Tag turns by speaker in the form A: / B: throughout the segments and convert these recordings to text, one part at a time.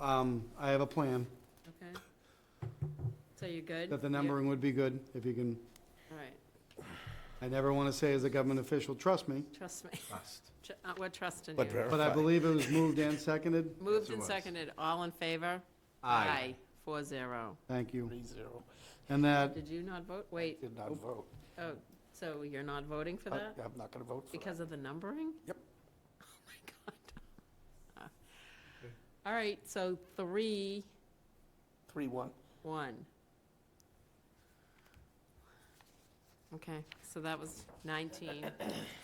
A: um, I have a plan,
B: Okay. So you're good?
A: that the
B: You-
A: numbering would be good, if you can,
B: All right,
A: I never want to say as a government official, trust me,
B: trust me.
C: Trust.
B: Tr- uh, We're trusting
C: But
B: you.
A: but I
C: verify.
A: believe it was moved and seconded.
B: Moved
C: Yes, it
B: and
C: was.
B: seconded, all in favor?
C: Aye.
B: Four zero.
A: Thank you.
C: Three zero.
A: And that,
B: Did you not vote? Wait,
C: Did not vote.
B: oh, so you're not voting for
C: I-
B: that?
C: I'm not going to vote for that.
B: Because of the numbering?
C: Uh, Yep.
B: Oh, my God. All right, so three,
C: Three one.
B: one. Okay, so that was 19.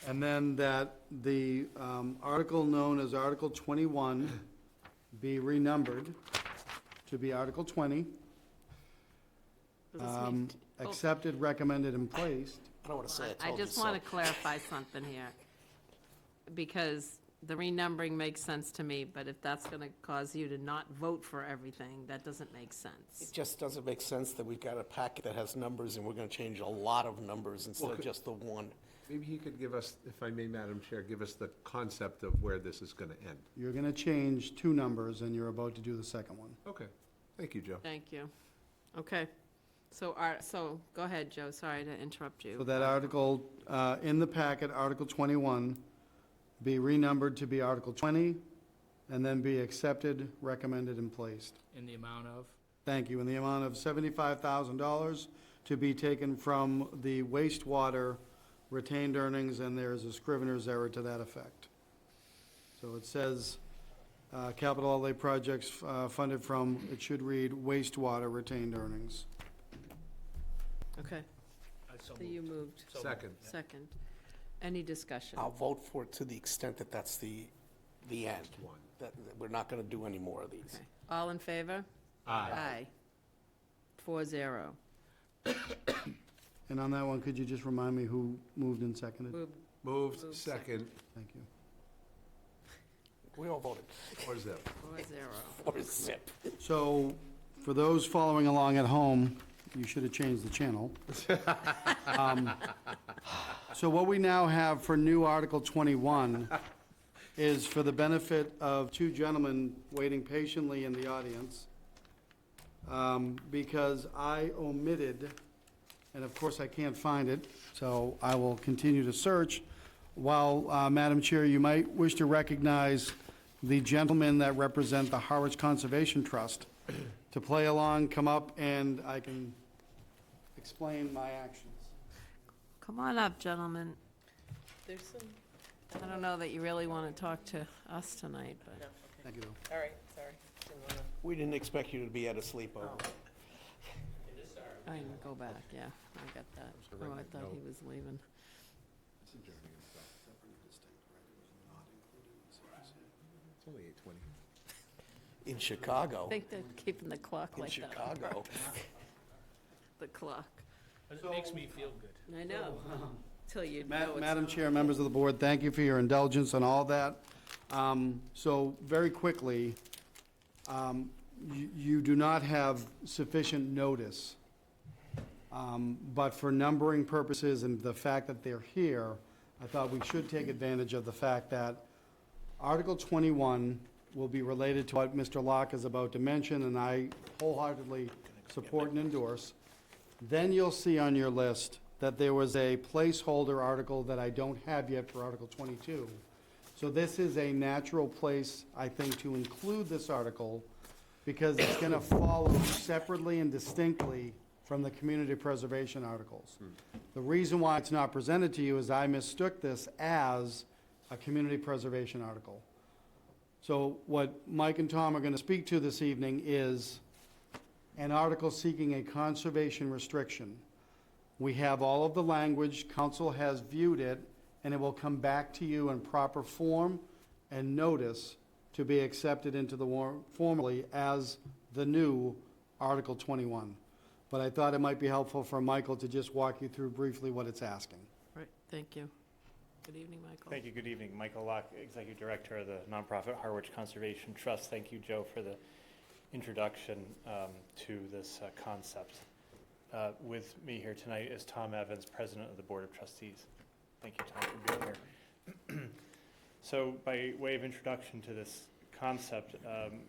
A: and then that the um, article known as Article 21 be renumbered to be Article 20,
B: Does this
A: um,
B: make- oh.
A: accepted, recommended, and placed.
C: I don't want to say I
B: I
C: told you
B: just
C: so.
B: want to clarify something here, because the renumbering makes sense to me, but if that's going to cause you to not vote for everything, that doesn't make
C: It
B: sense.
C: just doesn't make sense that we've got a packet that has numbers and we're going to change a lot of numbers instead of just the one.
D: Maybe he could give us, if I may, Madam Chair, give us the concept of where this is going to end.
A: You're going to change two numbers, and you're about to do the second one.
D: Okay. Thank you, Joe.
B: Thank you. Okay, so, our- so, go ahead, Joe, sorry to interrupt
A: So
B: you.
A: that article, uh, in the packet, Article 21, be renumbered to be Article 20, and then be accepted, recommended, and placed.
E: in the amount of,
A: Thank you, in the amount of $75,000 to be taken from the wastewater retained earnings, and there is a scrivener's error to that effect. So it says, uh, capital outlay projects uh, funded from, it should read wastewater retained earnings.
B: Okay,
E: I so
B: so you moved,
E: So-
D: Second.
B: second. Any discussion?
C: I'll vote for it to the extent that that's the, the end. One. That, that we're not going to do any more of these.
B: Okay. All in favor? Aye. Four zero.
A: And on that one, could you just remind me who moved and seconded?
B: Moved,
D: Moved,
B: Moved,
D: second,
A: Thank you.
C: We all voted
D: or is that?
B: four zero.
C: for zip.
A: So, for those following along at home, you should have changed the channel. Um, So what we now have for new Article 21 is for the benefit of two gentlemen waiting patiently in the audience, um, because I omitted, and of course I can't find it, so I will continue to search. While, uh, Madam Chair, you might wish to recognize the gentlemen that represent the Harwich Conservation Trust to play along, come up, and I can explain my actions.
B: Come on up, gentlemen. There's some. I don't know that you really want to talk to us tonight, but.
A: Thank you, though.
F: All right, sorry.
C: We didn't expect you to be at a sleepover.
B: I can go back, yeah, I got that. Oh, I thought he was leaving.
D: It's only 8:20.
C: In Chicago,
B: I think they're keeping the clock
C: in
B: like that. on
C: Chicago.
B: purpose, The clock.
E: But it makes me feel good.
B: I know, till you
A: Ma-
B: know it's
A: Madam
B: not.
A: Chair, members of the board, thank you for your indulgence on all that. Um, So very quickly, um, you you do not have sufficient notice. Um, But for numbering purposes and the fact that they're here, I thought we should take advantage of the fact that Article 21 will be related to what Mr. Locke is about to mention, and I wholeheartedly support and endorse. Then you'll see on your list that there was a placeholder article that I don't have yet for Article 22. So this is a natural place, I think, to include this article because it's going to follow separately and distinctly from the community preservation articles. The reason why it's not presented to you is I mistook this as a community preservation article. So what Mike and Tom are going to speak to this evening is an article seeking a conservation restriction. We have all of the language, council has viewed it, and it will come back to you in proper form and notice to be accepted into the war, formally as the new Article 21. But I thought it might be helpful for Michael to just walk you through briefly what it's asking.
B: Right, thank you. Good evening, Michael.
G: Thank you, good evening. Michael Locke, Executive Director of the nonprofit Harwich Conservation Trust. Thank you, Joe, for the introduction um, to this uh, concept. Uh, With me here tonight is Tom Evans, President of the Board of Trustees. Thank you, Tom, for being here. So by way of introduction to this concept, um,